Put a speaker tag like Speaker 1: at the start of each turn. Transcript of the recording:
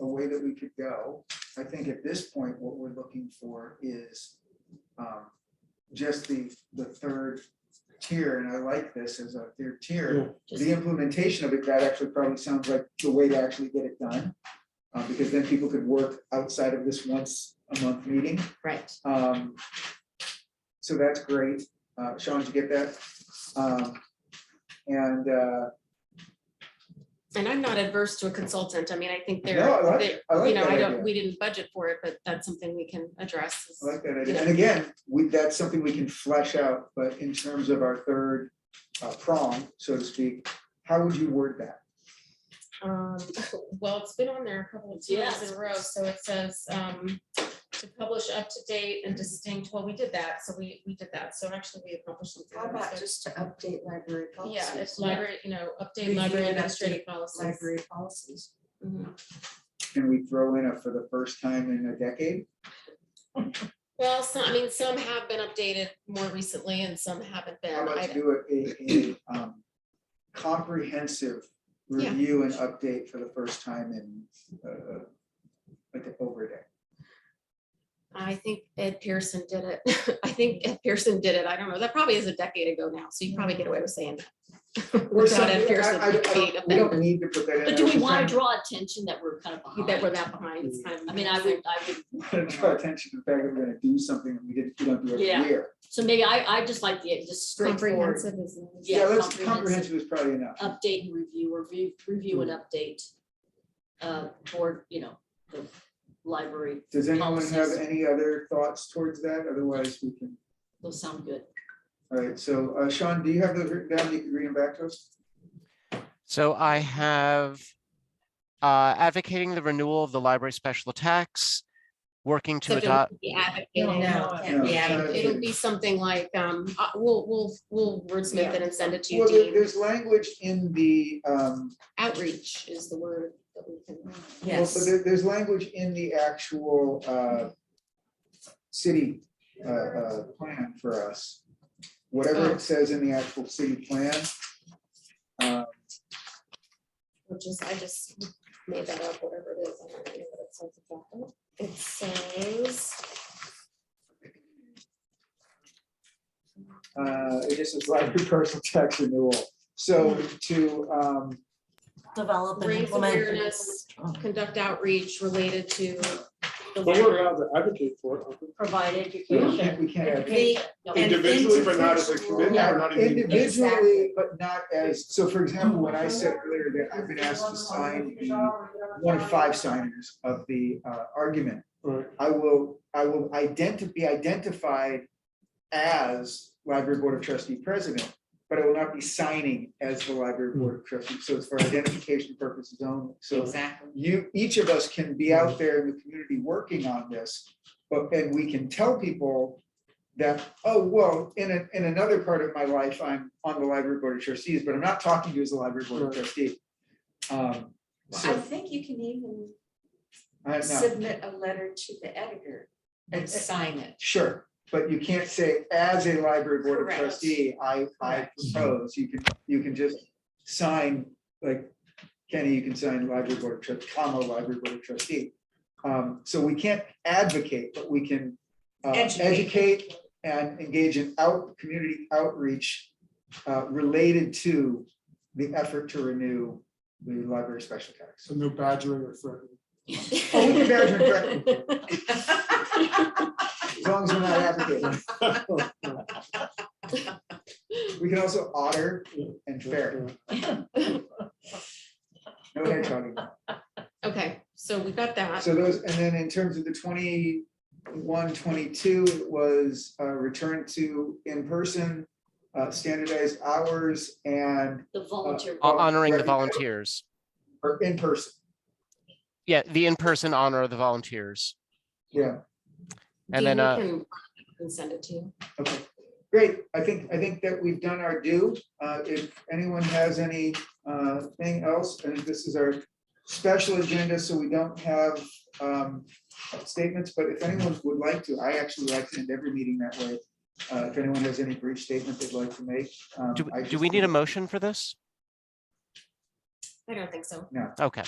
Speaker 1: way that we could go. I think at this point, what we're looking for is um, just the, the third tier, and I like this as a third tier. The implementation of it, that actually probably sounds like the way to actually get it done. uh, Because then people could work outside of this once a month meeting.
Speaker 2: Right.
Speaker 1: Um, so that's great. Uh, Sean, did you get that? Um, and, uh,
Speaker 2: And I'm not adverse to a consultant. I mean, I think
Speaker 1: No, I
Speaker 2: they're,
Speaker 1: like-
Speaker 2: they-
Speaker 1: I like
Speaker 2: you know,
Speaker 1: that
Speaker 2: I
Speaker 1: idea.
Speaker 2: don't, we didn't budget for it, but that's something we can address.
Speaker 1: I like that idea. And again, we, that's something we can flesh out, but in terms of our third uh, prong, so to speak, how would you word that?
Speaker 2: Um, well, it's been on there a couple of times in a row, so it says, um, to publish up to date and distinct, well, we did that, so we, we did that, so actually we accomplished something.
Speaker 3: How about
Speaker 2: So-
Speaker 3: just to update library policies?
Speaker 2: Yeah, it's library, you know, update
Speaker 3: Review
Speaker 2: library
Speaker 3: and
Speaker 2: administrative
Speaker 3: update
Speaker 2: policies.
Speaker 3: Library policies.
Speaker 2: Mhm.
Speaker 1: Can we throw in a for the first time in a decade?
Speaker 2: Well, some, I mean, some have been updated more recently and some haven't been.
Speaker 1: How about
Speaker 2: I-
Speaker 1: you do a, a, a, um, comprehensive
Speaker 2: Yeah.
Speaker 1: review and update for the first time in, uh, like over a day?
Speaker 2: I think Ed Pearson did it. I think Ed Pearson did it. I don't know. That probably is a decade ago now, so you probably get away with saying that.
Speaker 1: Or
Speaker 2: Without
Speaker 1: something,
Speaker 2: Ed
Speaker 1: I-
Speaker 2: Pearson
Speaker 1: I- I
Speaker 2: being
Speaker 1: don't- We don't need to put that in.
Speaker 4: But
Speaker 1: I
Speaker 4: do
Speaker 1: was
Speaker 4: we
Speaker 1: just
Speaker 4: want
Speaker 1: trying
Speaker 4: to draw attention that we're kind of
Speaker 2: That we're
Speaker 4: behind?
Speaker 2: that behind. It's kind of.
Speaker 4: I mean, I would, I would,
Speaker 1: to Draw attention to the fact that we're gonna do something that we didn't, we don't do every
Speaker 4: Yeah.
Speaker 1: year.
Speaker 4: so maybe I, I just like the, just straightforward,
Speaker 2: Comprehensive is. nice.
Speaker 4: Yeah,
Speaker 1: let's
Speaker 4: comprehensive.
Speaker 1: Comprehensive Mm-hmm. is probably enough.
Speaker 4: update and review, or review, review and update. Uh, board, you know, the library,
Speaker 1: Does anyone have
Speaker 4: Policies.
Speaker 1: any other thoughts towards that? Otherwise, we can,
Speaker 4: those sound good.
Speaker 1: all right, so, uh, Sean, do you have those written down? You can read them back to us?
Speaker 5: So I have uh, advocating the renewal of the library special tax, working to
Speaker 2: Except it
Speaker 5: adopt,
Speaker 2: would be advocating.
Speaker 3: No,
Speaker 1: can't be
Speaker 2: Yeah,
Speaker 1: advocating.
Speaker 2: It'll be something like, um, uh, we'll, we'll, we'll wordsmith it and send it to you,
Speaker 1: Well, there-
Speaker 2: Dean.
Speaker 1: there's language in the, um,
Speaker 2: Outreach is the word that we can.
Speaker 1: Well, so there- there's language in the actual uh, city uh, uh, plan for us. Whatever
Speaker 2: Oh.
Speaker 1: it says in the actual city plan. uh,
Speaker 2: which is, I just made that up, whatever it is. I don't even know what it says about that. It says,
Speaker 1: uh, It just is library personal tax renewal. So to, um,
Speaker 3: Develop
Speaker 2: raise awareness, conduct outreach related to the
Speaker 6: But we're
Speaker 2: library.
Speaker 6: allowed to advocate for it. aren't we?
Speaker 4: Provide
Speaker 1: we can't,
Speaker 4: education.
Speaker 1: we can't have
Speaker 4: The- no,
Speaker 3: And
Speaker 6: Individually, but not as a committee, or not even.
Speaker 1: individually, but not as, so for example, when I said earlier that I've been asked to sign the one of five signers of the uh, argument.
Speaker 6: Right.
Speaker 1: I will, I will identi- be identified as library board of trustee president, but I will not be signing as the library board of trustees. So it's for identification purposes only. So
Speaker 3: Exactly.
Speaker 1: you, each of us can be out there in the community working on this, but then we can tell people that, oh, well, in a, in another part of my life, I'm on the library board of trustees, but I'm not talking to you as the library board of trustee. Um,
Speaker 3: I
Speaker 1: so
Speaker 3: think you can even
Speaker 1: I know.
Speaker 3: submit a letter to the editor and sign it.
Speaker 1: Sure, but you can't say as a library board of
Speaker 3: Correct.
Speaker 1: trustee, I, I
Speaker 3: Correct.
Speaker 1: propose, you can, you can just sign, like, Kenny, you can sign library board of trustee, comma, library board of trustee. Um, so we can't advocate, but we can uh,
Speaker 3: Educate.
Speaker 1: educate and engage in out, community outreach uh, related to the effort to renew the library special tax.
Speaker 6: So no badgering or threatening.
Speaker 1: Oh, we can badge and threaten, as long as we're not advocating. We can also otter and fair. No hedgehogging.
Speaker 2: Okay, so we got that.
Speaker 1: So those, and then in terms of the 21, 22, it was uh, return to in-person, uh, standardized hours and,
Speaker 4: The volunteer,
Speaker 1: Uh,
Speaker 5: hon- honoring the
Speaker 1: Right, right.
Speaker 5: volunteers.
Speaker 1: or in-person,
Speaker 5: Yeah, the in-person honor of the volunteers.
Speaker 1: yeah,
Speaker 2: Dean,
Speaker 5: And then,
Speaker 2: you
Speaker 5: uh,
Speaker 2: can- Can send it to you.
Speaker 1: okay. Great, I think, I think that we've done our due. Uh, If anyone has any uh, thing else, and this is our special agenda, so we don't have um, statements, but if anyone would like to, I actually like to end every meeting that way. Uh, If anyone has any brief statement they'd like to make. um,
Speaker 5: do,
Speaker 1: I
Speaker 5: do
Speaker 1: just
Speaker 5: we need a
Speaker 1: think-
Speaker 5: motion for this?
Speaker 2: I don't think so.
Speaker 5: Okay,